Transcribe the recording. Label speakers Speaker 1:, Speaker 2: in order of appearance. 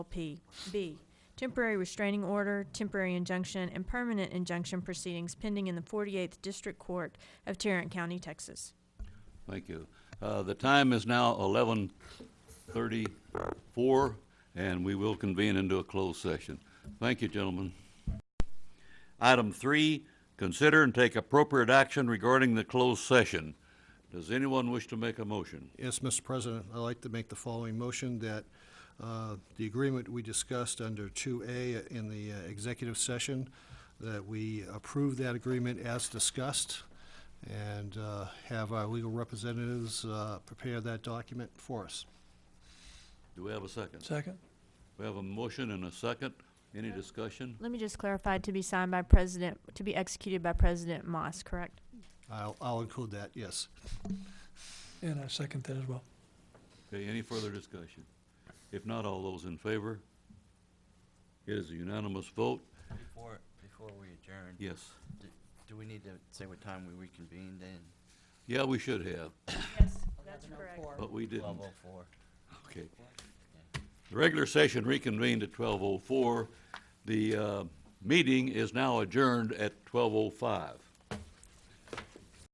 Speaker 1: P. B, temporary restraining order, temporary injunction, and permanent injunction proceedings pending in the 48th District Court of Tarrant County, Texas.
Speaker 2: Thank you. Uh, The time is now eleven thirty-four, and we will convene into a closed session. Thank you, gentlemen. Item three, consider and take appropriate action regarding the closed session. Does anyone wish to make a motion?
Speaker 3: Yes, Mr. President, I'd like to make the following motion that uh, the agreement we discussed under 2A in the uh, executive session, that we approve that agreement as discussed and uh, have our legal representatives uh, prepare that document for us.
Speaker 2: Do we have a second?
Speaker 4: Second?
Speaker 2: We have a motion and a second. Any discussion?
Speaker 1: Let me just clarify, to be signed by President, to be executed by President Moss, correct?
Speaker 3: I'll I'll include that, yes.
Speaker 4: And I second that as well.
Speaker 2: Okay, any further discussion? If not, all those in favor? It is a unanimous vote.
Speaker 5: Before, before we adjourn,
Speaker 2: Yes.
Speaker 5: d- do we need to say what time we reconvened in?
Speaker 2: Yeah, we should have,
Speaker 1: Yes, that's correct.
Speaker 2: but we didn't.
Speaker 5: Twelve oh four.
Speaker 2: Okay. The regular session reconvened at twelve oh four. The, uh, meeting is now adjourned at twelve oh five.